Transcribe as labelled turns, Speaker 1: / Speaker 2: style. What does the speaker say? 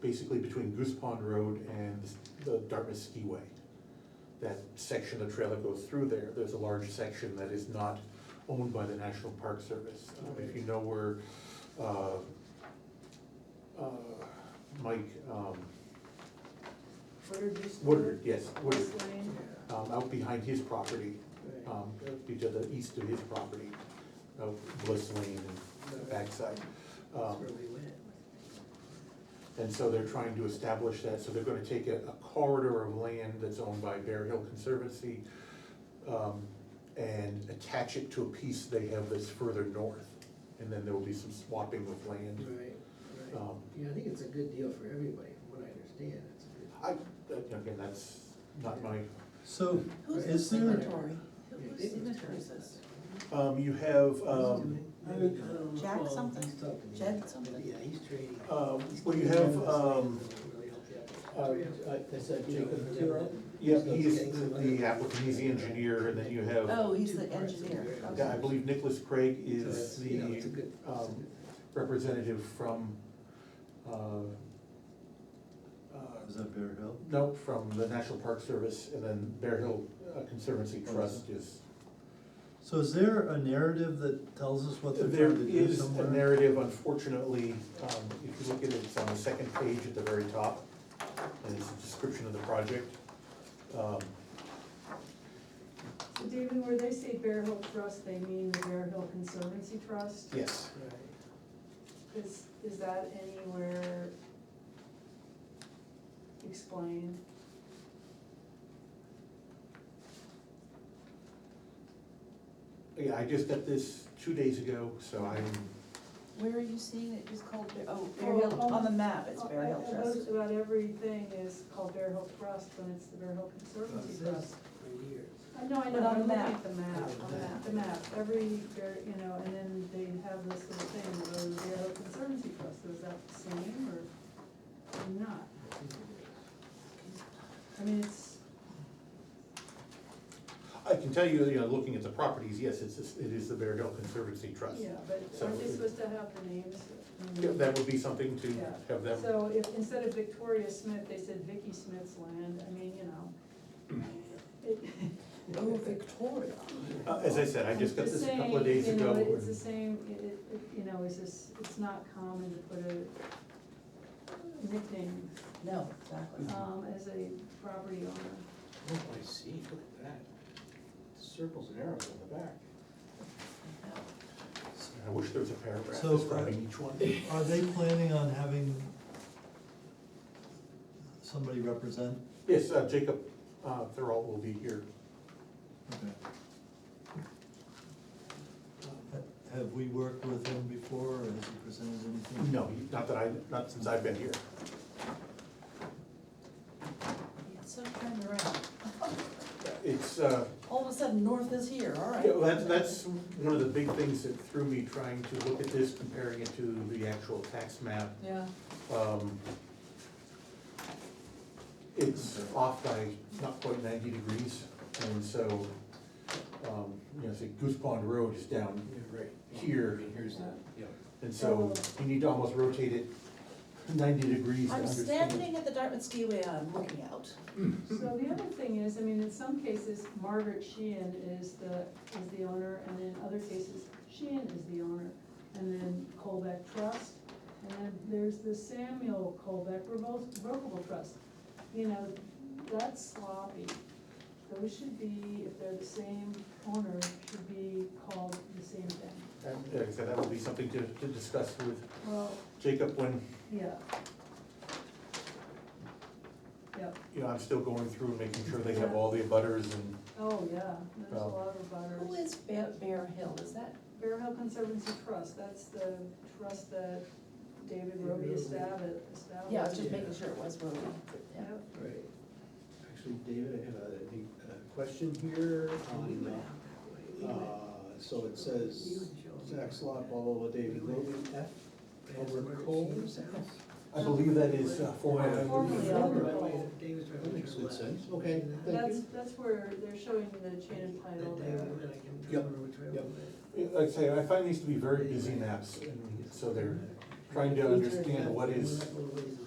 Speaker 1: basically between Goose Pond Road and the Dartmouth Skiway. That section of the trail that goes through there, there's a large section that is not owned by the National Park Service. Um, If you know where, uh, uh, Mike, um,
Speaker 2: Woodard used to-
Speaker 1: Woodard, yes, Woodard,
Speaker 2: West Lane.
Speaker 1: um, out behind his property,
Speaker 3: Right.
Speaker 1: um, be to the east of his property, of Bliss Lane and backside.
Speaker 3: That's
Speaker 1: Um,
Speaker 3: where we went.
Speaker 1: And so they're trying to establish that, so they're gonna take a a corridor of land that's owned by Bear Hill Conservancy um, and attach it to a piece they have that's further north. And then there will be some swapping of land.
Speaker 3: Right, right.
Speaker 1: Um,
Speaker 3: Yeah, I think it's a good deal for everybody, from what I understand, it's a good.
Speaker 1: I, that- again, that's not my,
Speaker 4: So
Speaker 2: Who's
Speaker 4: is
Speaker 2: the
Speaker 4: there,
Speaker 2: signatory?
Speaker 3: Yeah,
Speaker 2: Who's
Speaker 3: David's
Speaker 2: signatory
Speaker 3: turn.
Speaker 2: is this?
Speaker 1: um, you have, um,
Speaker 3: Um,
Speaker 2: Jack something.
Speaker 3: He's talking to
Speaker 2: Jack
Speaker 3: me.
Speaker 2: something.
Speaker 3: Yeah, he's trading.
Speaker 1: um, well, you have, um,
Speaker 3: Uh,
Speaker 5: Is that Jacob Tiro?
Speaker 1: yeah, he's the- the applicant, he's the engineer, and then you have,
Speaker 2: Oh, he's the engineer,
Speaker 3: Yeah,
Speaker 1: yeah, I
Speaker 2: okay.
Speaker 1: believe Nicholas Craig
Speaker 3: So
Speaker 1: is
Speaker 3: it's, you know, it's a
Speaker 1: the
Speaker 3: good- it's a
Speaker 1: um,
Speaker 3: good-
Speaker 1: representative from, uh, uh,
Speaker 4: is that Bear Hill?
Speaker 1: Nope, from the National Park Service, and then Bear Hill uh, Conservancy Trust is.
Speaker 4: So is there a narrative that tells us what they're
Speaker 1: There
Speaker 4: trying to do
Speaker 1: is a
Speaker 4: somewhere?
Speaker 1: narrative, unfortunately, um, if you look at it, it's on the second page at the very top, and it's a description of the project. Um,
Speaker 6: So David, where they say Bear Hill Trust, they mean the Bear Hill Conservancy Trust?
Speaker 1: Yes,
Speaker 3: right.
Speaker 6: Is, is that anywhere explained?
Speaker 1: yeah, I just got this two days ago, so I'm,
Speaker 2: Where are you seeing it, it's called, Bear- oh, Bear
Speaker 6: Oh,
Speaker 2: Hill,
Speaker 6: on-
Speaker 2: on the map, it's Bear Hill
Speaker 6: Uh, Most
Speaker 2: Trust.
Speaker 6: about everything is called Bear Hill Trust, and it's the Bear Hill Conservancy
Speaker 3: It
Speaker 6: Trust.
Speaker 3: says right here.
Speaker 6: I know, I
Speaker 2: But on
Speaker 6: know, I'm
Speaker 2: the
Speaker 6: looking
Speaker 2: map.
Speaker 6: at the map,
Speaker 3: On
Speaker 2: the
Speaker 6: the map, every, Bear- you know, and then they have this little thing, the Bear Hill Conservancy Trust, is that the same or not? I mean, it's,
Speaker 1: I can tell you, you know, looking at the properties, yes, it's, it is the Bear Hill Conservancy Trust.
Speaker 6: yeah, but
Speaker 1: So
Speaker 6: aren't they
Speaker 1: it-
Speaker 6: supposed to have the names?
Speaker 1: Yeah, That would be something to
Speaker 6: Yeah.
Speaker 1: have them,
Speaker 6: So if, instead of Victoria Smith, they said Vicky Smith's land, I mean, you know. it-
Speaker 2: Oh, Victoria.
Speaker 1: Uh, as I said, I just got
Speaker 6: I'm
Speaker 1: this a couple of
Speaker 6: saying,
Speaker 1: days ago.
Speaker 6: You know, it's
Speaker 1: and-
Speaker 6: the same, it, it, it- you know, it's just, it's not common to put a nickname,
Speaker 2: No, exactly.
Speaker 1: Mm-hmm.
Speaker 6: um, as a property owner.
Speaker 5: Oh, I see, look at that. Circles and arrows on the back.
Speaker 2: Oh,
Speaker 1: I wish there was a paragraph
Speaker 4: So, uh,
Speaker 1: describing each one.
Speaker 4: Are they planning on having somebody represent?
Speaker 1: Yes, uh, Jacob uh, Thurl will be here.
Speaker 4: Okay. Have we worked with him before, or has he presented anything?
Speaker 1: No, he- not that I, not since I've been here.
Speaker 2: It's so turned around.
Speaker 1: It's, uh,
Speaker 2: All of a sudden, north is here, all right.
Speaker 1: yeah, well, that's, that's one of the big things that threw me trying to look at this, comparing it to the actual tax map.
Speaker 2: Yeah.
Speaker 1: Um, It's off by not quite ninety degrees, and so, um, you know, say Goose Pond Road is down
Speaker 5: Right.
Speaker 1: here,
Speaker 5: Here's
Speaker 6: Uh,
Speaker 5: that, yeah.
Speaker 1: and so you need to almost rotate it ninety degrees to
Speaker 2: I'm
Speaker 1: understand.
Speaker 2: standing at the Dartmouth skiway, I'm looking out.
Speaker 6: So the other thing is, I mean, in some cases Margaret Sheehan is the, is the owner, and in other cases Sheehan is the owner. And then Colbeck Trust, and then there's the Samuel Colbeck Revol- Revocable Trust. You know, that's sloppy. Those should be, if they're the same owner, should be called the same thing.
Speaker 1: And, Like I said, that would be something to, to discuss with
Speaker 6: Well,
Speaker 1: Jacob when,
Speaker 6: yeah. Yep,
Speaker 1: you know, I'm still going through and making sure they have all the butters and,
Speaker 6: oh, yeah, there's a
Speaker 1: Well.
Speaker 6: lot of butters.
Speaker 2: Who is Bear, Bear Hill, is that?
Speaker 6: Bear Hill Conservancy Trust, that's the trust that David Roby
Speaker 3: Roby.
Speaker 6: established. established.
Speaker 2: Yeah, I was just making sure it was Roby, yeah.
Speaker 6: Yep.
Speaker 5: Right. Actually, David, I have a, a question here on, uh,
Speaker 3: Anyway,
Speaker 5: Uh, So it says, Zach Slot, blah,
Speaker 3: Ball,
Speaker 5: blah, blah, David Logan, F, over Cole's house.
Speaker 1: I believe that is uh,
Speaker 3: Formerly
Speaker 1: formatted.
Speaker 6: Albert
Speaker 3: Right,
Speaker 6: Cole.
Speaker 3: David's right
Speaker 5: That
Speaker 3: on
Speaker 5: makes
Speaker 3: your
Speaker 5: good
Speaker 3: left.
Speaker 5: sense. Okay,
Speaker 3: That
Speaker 5: thank
Speaker 6: That's,
Speaker 5: you.
Speaker 6: that's where they're showing the chain and title
Speaker 3: David
Speaker 6: there.
Speaker 3: went, I can't
Speaker 5: Yep,
Speaker 3: remember which way it
Speaker 5: yep.
Speaker 3: went.
Speaker 1: Like I say, I find these to be very busy maps, and so they're trying to understand what is,
Speaker 3: Little ways